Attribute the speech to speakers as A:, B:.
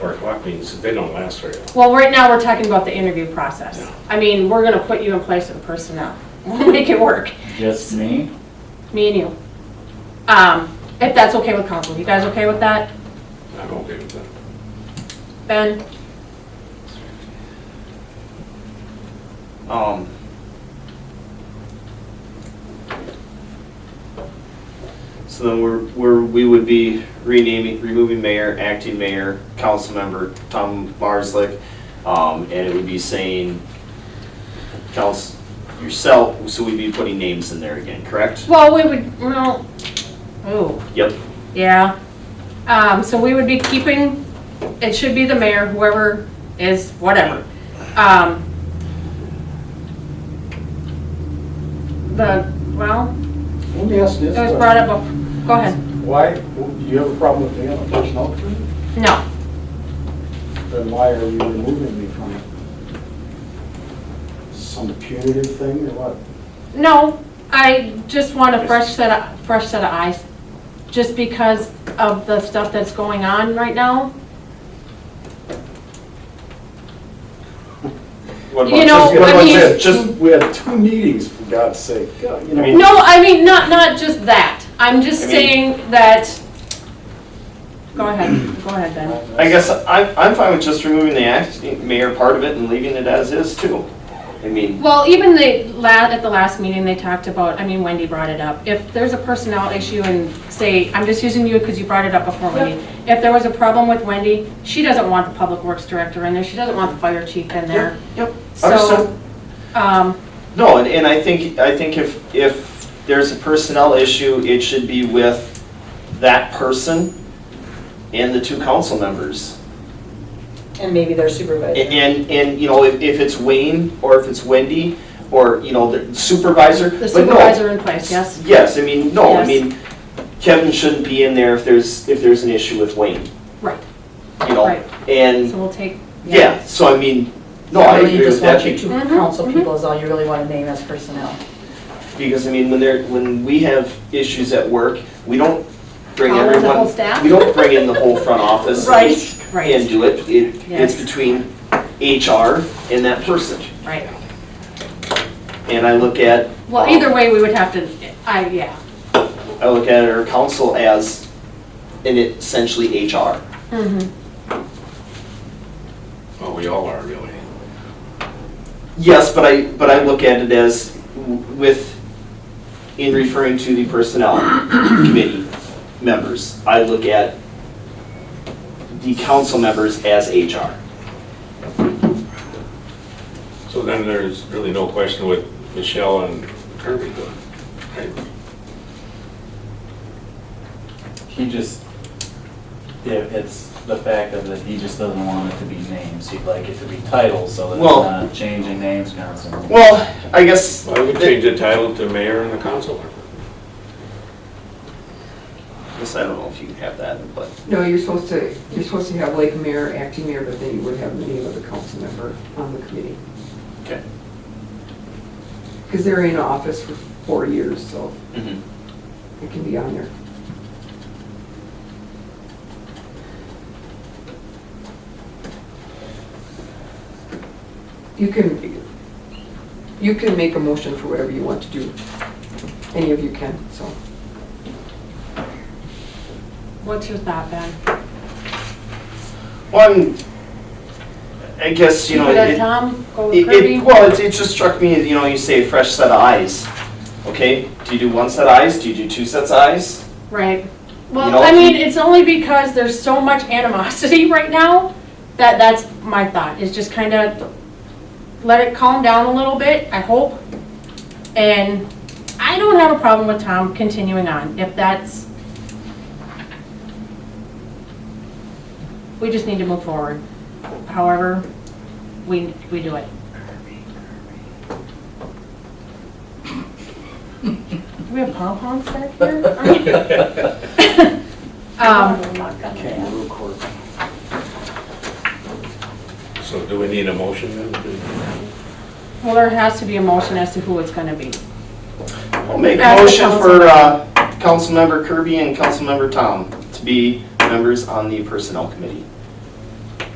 A: or block meetings, they don't last very long.
B: Well, right now, we're talking about the interview process.
A: Yeah.
B: I mean, we're gonna put you in place of the personnel. We'll make it work,
C: Just me?
B: me and you. Um, if that's okay with council, you guys okay with that,
A: I'm okay with that.
B: Ben?
C: Um. So then we're, we're, we would be renaming, removing mayor, acting mayor, council member, Tom Marslick. Um, and it would be saying, council, yourself, so we'd be putting names in there again, correct?
B: Well, we would, well, oh,
C: Yep,
B: yeah. Um, so we would be keeping, it should be the mayor, whoever is, whatever. Um, the, well,
D: Let me ask this
B: it was brought
D: question.
B: up, bef- go ahead.
D: Why, do you have a problem with me on a personnel committee?
B: No,
D: Then why are you removing me from it? Some punitive thing or what?
B: No, I just want a fresh set of, fresh set of eyes, just because of the stuff that's going on right now.
C: What
B: You
C: about
B: know,
D: Just-
B: I mean-
D: just- Just, we had two meetings, for God's sake, God, you
C: I
D: know.
C: mean-
B: No, I mean, not, not just that, I'm just
C: I mean-
B: saying that, go ahead, go ahead, Ben.
C: I guess I'm, I'm fine with just removing the acting mayor part of it and leaving it as is too. I mean,
B: Well, even the, la- at the last meeting, they talked about, I mean, Wendy brought it up, if there's a personnel issue and say, I'm just using you because you brought it up before, Wendy. If there was a problem with Wendy, she doesn't want the public works director in there, she doesn't want the fire chief in there.
C: yep, understood.
B: So, um,
C: No, and, and I think, I think if, if there's a personnel issue, it should be with that person and the two council members.
E: And maybe their
C: A-
E: supervisor.
C: And, and, you know, if, if it's Wayne, or if it's Wendy, or, you know, the supervisor,
B: the
C: but no.
B: supervisor in place, yes?
C: Yes, I mean, no, I
B: Yes.
C: mean, Kevin shouldn't be in there if there's, if there's an issue with Wayne,
B: Right,
C: you know?
B: Right. so
C: And,
B: we'll take, yeah.
C: yeah, so I mean, no, I
E: Really,
C: agree with that.
E: You just
B: be- Mhm,
E: want your two council
B: mhm.
E: people is all you really want to name as personnel.
C: Because, I mean, when they're, when we have issues at work, we don't bring
B: Call in the
C: everyone.
B: whole staff?
C: We don't bring in the whole front office.
E: Right.
C: And
B: Right,
C: do it. It,
B: Yes.
C: it's between HR and that person.
B: right.
C: And I look at, um,
B: Well, either way, we would have to, I, yeah.
C: I look at our council as, and it essentially HR.
B: Mhm.
A: Well, we all are really.
C: Yes, but I, but I look at it as w- with, in referring to the personnel committee members, I look at the council members as HR.
A: So then there's really no question with Michelle and Kirby, right?
F: He just, yeah, it's the fact of that he just doesn't want it to be names, he'd like it to be titles, so that it's
C: Well-
F: not changing names constantly.
C: Well, I guess,
A: Well, we could change the title to mayor and the council.
C: I guess I don't know if you have that, but,
G: No, you're supposed to, you're supposed to have Lake Mayor, acting mayor, but then you would have the name of the council member on the committee.
C: okay.
G: Because they're in office for four years, so
C: Mm-hmm.
G: it can be on there. You can, you can make a motion for whatever you want to do. Any of you can, so.
B: What's your thought, Ben?
C: Well, I'm, I guess, you
B: Keep
C: know,
B: it at
C: it,
B: Tom, go with
C: it-
B: Kirby?
C: it, well, it, it just struck me, you know, you say a fresh set of eyes, okay? Do you do one set of eyes, do you do two sets of eyes?
B: Right.
C: You
B: Well,
C: know,
B: I mean,
C: he-
B: it's only because there's so much animosity right now that that's my thought, is just kind of let it calm down a little bit, I hope. And I don't have a problem with Tom continuing on, if that's... We just need to move forward, however we, we do it. Do we have pom-poms back here? Um,
D: Kangaroo court.
A: So do we need a motion then?
B: Well, there has to be a motion as to who it's gonna be.
C: I'll make a
B: As a
C: motion
B: council.
C: for, uh, Councilmember Kirby and Councilmember Tom to be members on the personnel committee.